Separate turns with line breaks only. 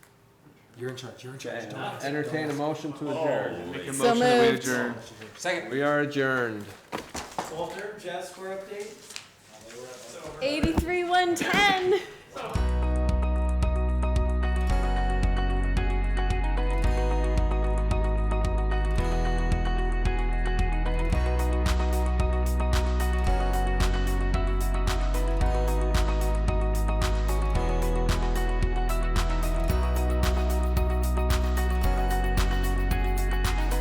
You're in charge, you're in charge. Don't ask-
Entertain a
don't
motion to adjourn.
Make a
So
motion that we
moved.
adjourn.
ask.
We are adjourned.
Walter, Jazz Square update?
Eighty-three, one ten.